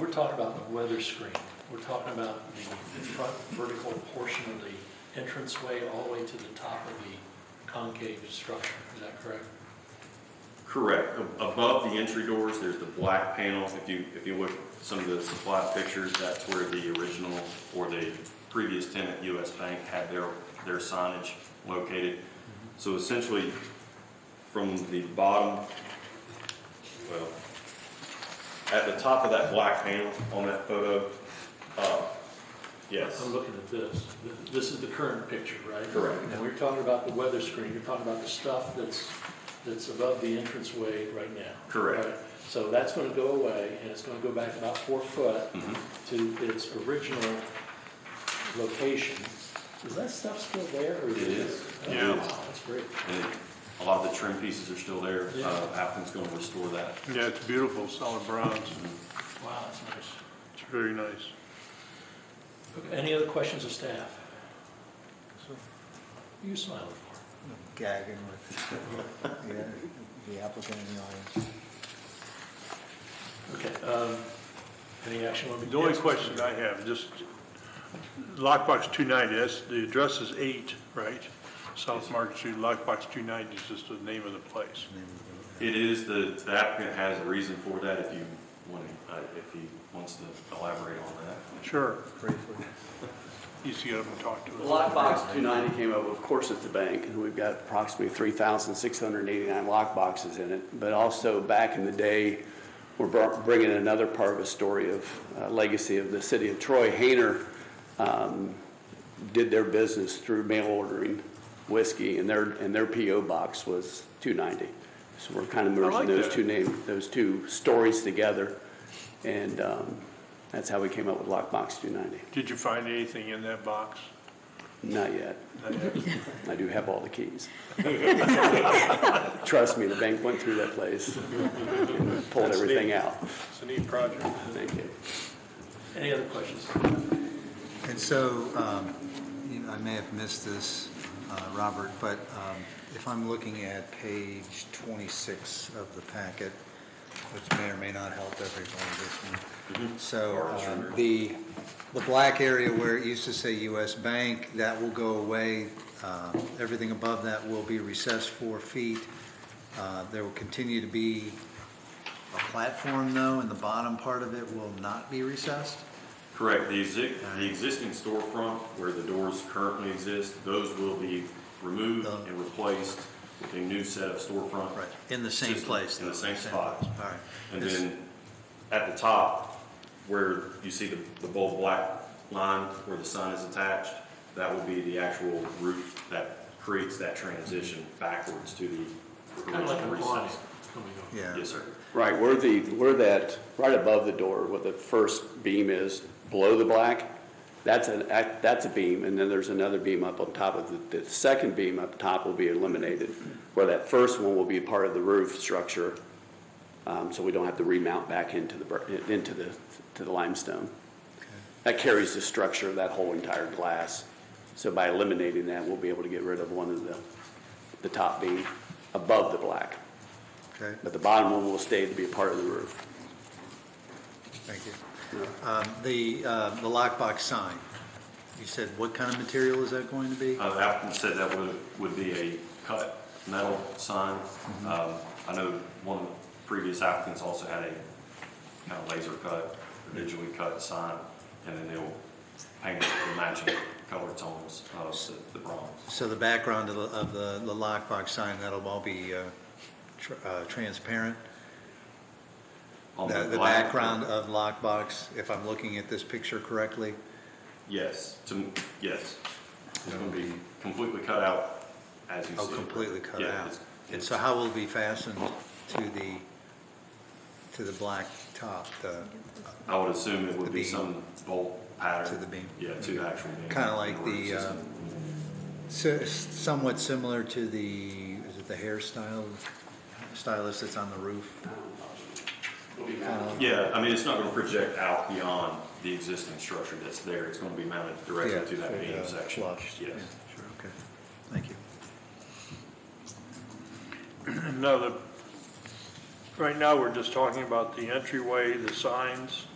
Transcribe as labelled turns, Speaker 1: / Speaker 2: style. Speaker 1: we're talking about the weather screen, we're talking about the front vertical portion of the entranceway all the way to the top of the concave structure, is that correct?
Speaker 2: Correct. A- Above the entry doors, there's the black panel. If you, if you look at some of the supply pictures, that's where the original or the previous tenant, US Bank, had their, their signage located. So essentially, from the bottom, well, at the top of that black panel on that photo, uh, yes.
Speaker 1: I'm looking at this, Th- this is the current picture, right?
Speaker 2: Correct.
Speaker 1: And we're talking about the weather screen, you're talking about the stuff that's, that's above the entranceway right now.
Speaker 2: Correct.
Speaker 1: Right? So that's gonna go away, and it's gonna go back about four foot
Speaker 2: Mhm.
Speaker 1: to its original location. Is that stuff still there? or
Speaker 2: It is.
Speaker 1: Oh,
Speaker 2: Yeah.
Speaker 1: wow, That's great.
Speaker 2: And a lot of the trim pieces are still there.
Speaker 1: Yeah.
Speaker 2: Uh, Applicant's going to restore that.
Speaker 3: Yeah, it's beautiful, solid bronze.
Speaker 1: Wow, that's nice.
Speaker 3: It's very nice.
Speaker 1: Okay, Any other questions of staff? What are you smiling for?
Speaker 4: I'm gagging with the- the applicant in the audience.
Speaker 1: Okay, um, any action on the...
Speaker 3: The only question I have, just lockbox 290, that's, the address is 8, right? South Market Street, lockbox 290 is just the name of the place.
Speaker 2: It is, the the applicant has a reason for that if you want, to- uh, if he wants to elaborate on that.
Speaker 3: Sure,
Speaker 4: Briefly.
Speaker 3: he's to get up and talk to us.
Speaker 5: Lockbox 290 came up, of course, at the bank, and we've got approximately 3,689 lockboxes in it. But also, back in the day, we're br- bringing another part of a story of uh, legacy of the city of Troy. Hayner um, did their business through mail ordering whiskey, and their, and their PO box was 290. So we're kind of
Speaker 3: like
Speaker 5: merging those
Speaker 3: that.
Speaker 5: two names, those two stories together, and um, that's how we came up with Lockbox 290.
Speaker 3: Did you find anything in that box?
Speaker 5: Not yet.
Speaker 3: Not yet.
Speaker 5: I do have all the keys. Trust me, the bank went through that place, and pulled everything out.
Speaker 3: It's a neat project.
Speaker 5: Thank you.
Speaker 1: Any other questions?
Speaker 4: And so, um, you know, I may have missed this, uh, Robert, but um, if I'm looking at page 26 of the packet, which may or may not help everyone, this one. So um, the, the black area where it used to say US Bank, that will go away. Uh, Everything above that will be recessed four feet. Uh, There will continue to be a platform, though, and the bottom part of it will not be recessed?
Speaker 2: Correct, the exi- uh, the existing storefront where the doors currently exist, those will be removed and replaced with a new set of storefront.
Speaker 4: Right, in the same
Speaker 2: system,
Speaker 4: place.
Speaker 2: In the
Speaker 4: though,
Speaker 2: same spot.
Speaker 4: All right.
Speaker 2: And
Speaker 4: It's-
Speaker 2: then at the top, where you see the, the bold black line where the sign is attached, that will be the actual route that creates that transition backwards to the.
Speaker 1: Kind of like a
Speaker 2: original
Speaker 1: line
Speaker 2: recess.
Speaker 1: coming over.
Speaker 4: Yeah,
Speaker 2: Yes, sir.
Speaker 5: Right, where the, where that, right above the door, where the first beam is, below the black, that's an, act- that's a beam, and then there's another beam up on top of it. The second beam up top will be eliminated, where that first one will be part of the roof structure, um, so we don't have to remount back into the, bur- into the, to the limestone. That carries the structure of that whole entire glass. So by eliminating that, we'll be able to get rid of one of the, the top beam above the black.
Speaker 4: okay,
Speaker 5: But the bottom one will stay to be a part of the roof.
Speaker 4: thank you. Um, The, uh, the lockbox sign, you said what kind of material is that going to be?
Speaker 2: Uh, the applicant said that would, would be a cut metal sign.
Speaker 4: Mm-hmm.
Speaker 2: Um, I know one of the previous applicants also had a kind of laser cut, digitally cut sign, and then they'll paint the matching color tones of the the bronze.
Speaker 4: So the background of the, of the the lockbox sign, that'll all be uh, tr- uh, transparent?
Speaker 2: On
Speaker 4: The the
Speaker 2: black-
Speaker 4: background of lockbox, if I'm looking at this picture correctly?
Speaker 2: Yes, to, yes. It's
Speaker 4: That
Speaker 2: gonna
Speaker 4: would
Speaker 2: be
Speaker 4: be-
Speaker 2: completely cut out as you see.
Speaker 4: Oh,
Speaker 2: it.
Speaker 4: completely cut
Speaker 2: Yeah,
Speaker 4: out?
Speaker 2: it's-
Speaker 4: And so how will it be fastened to the, to the black top, the,
Speaker 2: I would assume it would
Speaker 4: the
Speaker 2: be
Speaker 4: beam.
Speaker 2: some bolt pattern.
Speaker 4: To the beam. Mm-hmm.
Speaker 2: Yeah, to the actual beam.
Speaker 4: Kinda like
Speaker 2: in root
Speaker 4: the, uh,
Speaker 2: system.
Speaker 4: So- Somewhat similar to the, is it the hairstyle stylist that's on the roof?
Speaker 2: Yeah, I mean, it's not gonna project out beyond the existing structure that's there. It's gonna be mounted
Speaker 4: Yeah,
Speaker 2: directly to that beam
Speaker 4: uh,
Speaker 2: section.
Speaker 4: flush.
Speaker 2: Yes.
Speaker 4: Yeah, Sure, okay, thank you.
Speaker 3: No, the, right now, we're just talking about the entryway, the signs,